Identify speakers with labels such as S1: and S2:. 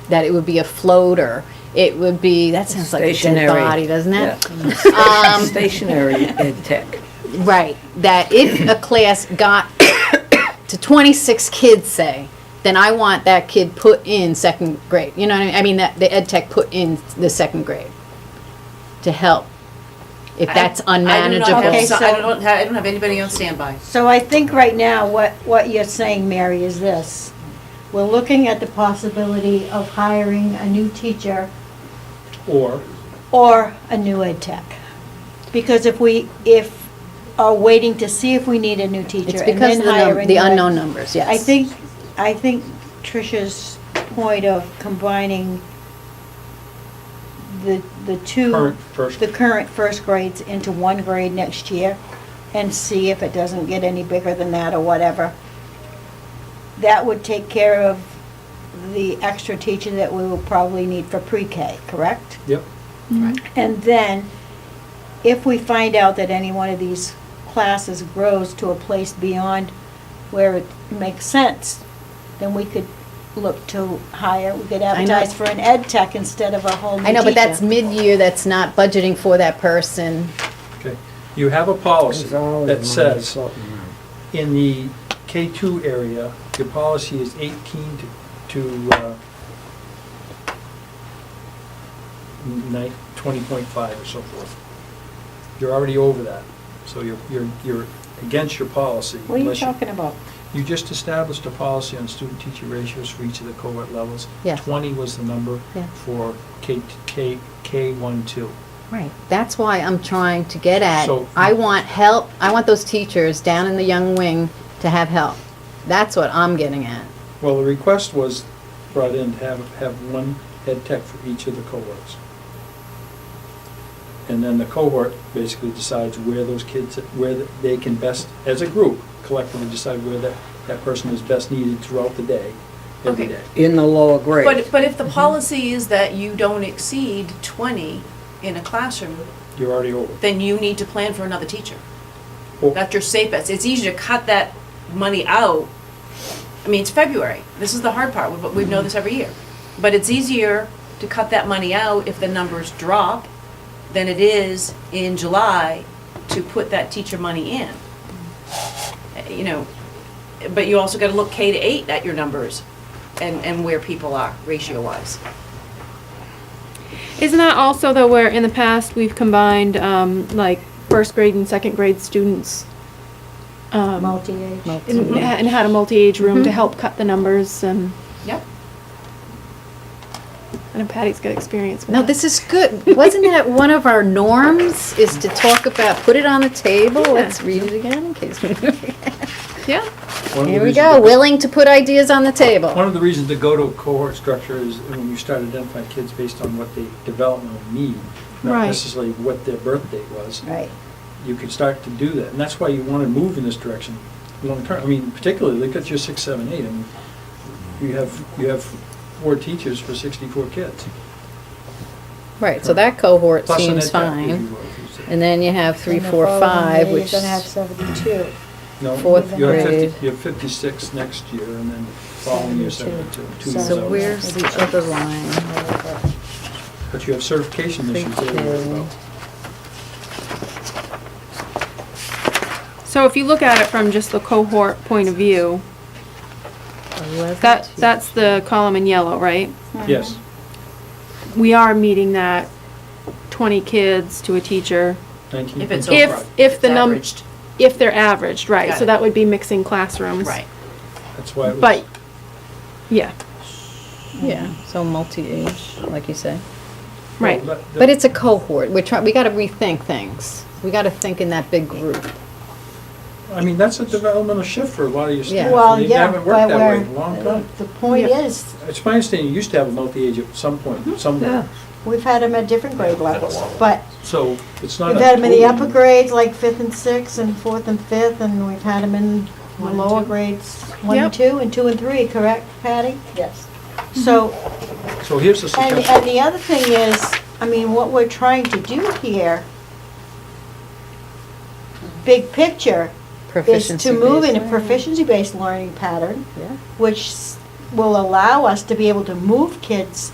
S1: that it would be a floater, it would be, that sounds like a dead
S2: Stationary.
S1: body, doesn't
S2: Yeah.
S1: it? Mm. Um,
S2: Stationary ed tech.
S1: Right, that if a class got to 26 kids, say, then I want that kid put in second grade, you know what I mean? I mean, that, the ed tech put in the second grade to help, if that's
S3: I do not have,
S1: unmanageable.
S3: so-
S4: so-
S3: I don't have, I don't have anybody on standby.
S4: So I think right now, what, what you're saying, Mary, is this. We're looking at the possibility of hiring a new teacher
S5: Or,
S4: or a new ed tech. Because if we, if, are waiting to see if we need a new teacher
S1: It's
S4: and
S1: because
S4: then
S1: of the num-
S4: hire a
S1: the
S4: new ed-
S1: unknown numbers, yes.
S4: I think, I think Tricia's point of combining the, the two.
S5: Current first-
S4: The current first grades into one grade next year and see if it doesn't get any bigger than that or whatever. That would take care of the extra teacher that we will probably need for pre-K, correct?
S5: yep,
S4: And then, if we find out that any one of these classes grows to a place beyond where it makes sense, then we could look to hire, we could
S1: I know.
S4: advertise for an ed tech instead of a whole new
S1: I know, but that's
S4: teacher.
S1: mid-year, that's not budgeting for that person.
S5: okay. You have a policy
S6: There's always
S5: that
S6: money
S5: says,
S6: floating around.
S5: in the K2 area, your policy is 18 to, to uh, nine- 20.5 or so forth. You're already over that, so you're, you're, you're against your policy.
S4: What are you
S5: unless
S4: talking about?
S5: You just established a policy on student-teacher ratios for each of the cohort levels.
S1: Yeah.
S5: 20 was the number
S1: Yeah.
S5: for K, K, K1, 2.
S1: Right. That's why I'm trying to get at,
S5: So-
S1: I want help, I want those teachers down in the young wing to have help. That's what I'm getting at.
S5: Well, the request was brought in to have, have one head tech for each of the cohorts. And then the cohort basically decides where those kids, where they can best, as a group, collectively decide where that, that person is best needed throughout the day, every
S3: Okay.
S5: day.
S2: In the lower grade.
S3: But, but if the policy is that you don't exceed twenty in a classroom,
S5: You're already over.
S3: then you need to plan for another teacher.
S5: Well,
S3: That's your safe bets. It's easy to cut that money out. I mean, it's February. This is the hard part. We, we know this every year. But it's easier to cut that money out if the numbers drop than it is in July to put that teacher money in. Uh, You know, but you also gotta look K to eight at your numbers and, and where people are ratio-wise.
S7: Isn't that also though where in the past we've combined um, like first grade and second grade students um,
S4: Multi-age?
S7: and, and had a multi-age room to help cut the numbers and
S3: Yep.
S7: I know Patty's got experience. With
S1: No,
S7: that.
S1: this is good. Wasn't that one of our norms, is to talk about, put it on the table? Let's read it again in case we
S7: yeah.
S5: one of the
S1: Here we
S5: reasons
S1: go,
S5: that-
S1: willing to put ideas on the
S5: One
S1: table.
S5: of the reasons to go to a cohort structure is when you start identifying kids based on what they developmentally need, not
S7: Right.
S5: necessarily what their birth date was.
S4: Right.
S5: you could start to do that. And that's why you want to move in this direction long term. I mean, particularly, look at your six, seven, eight. I mean, you have, you have four teachers for sixty-four kids.
S1: Right, so that cohort
S5: Plus an
S1: seems
S5: ed tech, if you
S1: fine.
S5: will, if you say.
S1: And then you have three,
S4: And the
S1: four,
S4: following
S1: five,
S4: year
S1: which,
S4: You're gonna have seventy-two.
S5: No,
S1: fourth
S5: you have 50
S1: grade.
S5: You have fifty-six next year and then following year seventy-two, two years
S1: so
S5: out.
S1: where's the other line?
S5: But you have certification issues there as well.
S7: So if you look at it from just the cohort point of view, that that's the column in yellow, right?
S5: Yes,
S7: We are meeting that 20 kids to a teacher
S5: nineteen.
S3: If it's
S5: point
S3: over.
S7: if
S5: five.
S7: if the
S3: It's
S7: num-
S3: averaged.
S7: if they're averaged, right?
S3: Got
S7: so
S3: it.
S7: that would be mixing classrooms.
S3: Right.
S5: That's why it was.
S7: But yeah.
S1: Yeah, so multi-age, like you say.
S5: well,
S7: Right.
S5: that-
S1: But it's a cohort. We're trying, we gotta rethink things. We gotta think in that big group.
S5: I mean, that's a developmental shift for a lot of your
S1: Yeah.
S5: staff.
S4: Well,
S5: and They
S4: yeah,
S5: haven't worked
S4: but
S5: that way
S4: we're,
S5: in a long time.
S4: the point
S7: Yeah.
S4: is,
S5: It's my understanding, you used to have a multi-age at some
S4: Mm-hmm.
S5: point, somewhere.
S4: we've had them at different grade levels, but
S5: So it's not.
S4: We've
S5: a
S4: had them in the
S5: total-
S4: upper grades, like fifth and sixth, and fourth and fifth, and we've had them in the
S3: One and
S4: lower
S3: two.
S4: grades, one and
S7: Yep.
S4: two, and two and three, correct, Patty? Yes. So,
S5: So here's the
S4: and,
S5: suggestion.
S4: and the other thing is, I mean, what we're trying to do here, big picture, is
S1: Proficiency
S4: to move
S1: based.
S4: in a proficiency-based learning pattern,
S1: Yeah.
S4: which s- will allow us to be able to move kids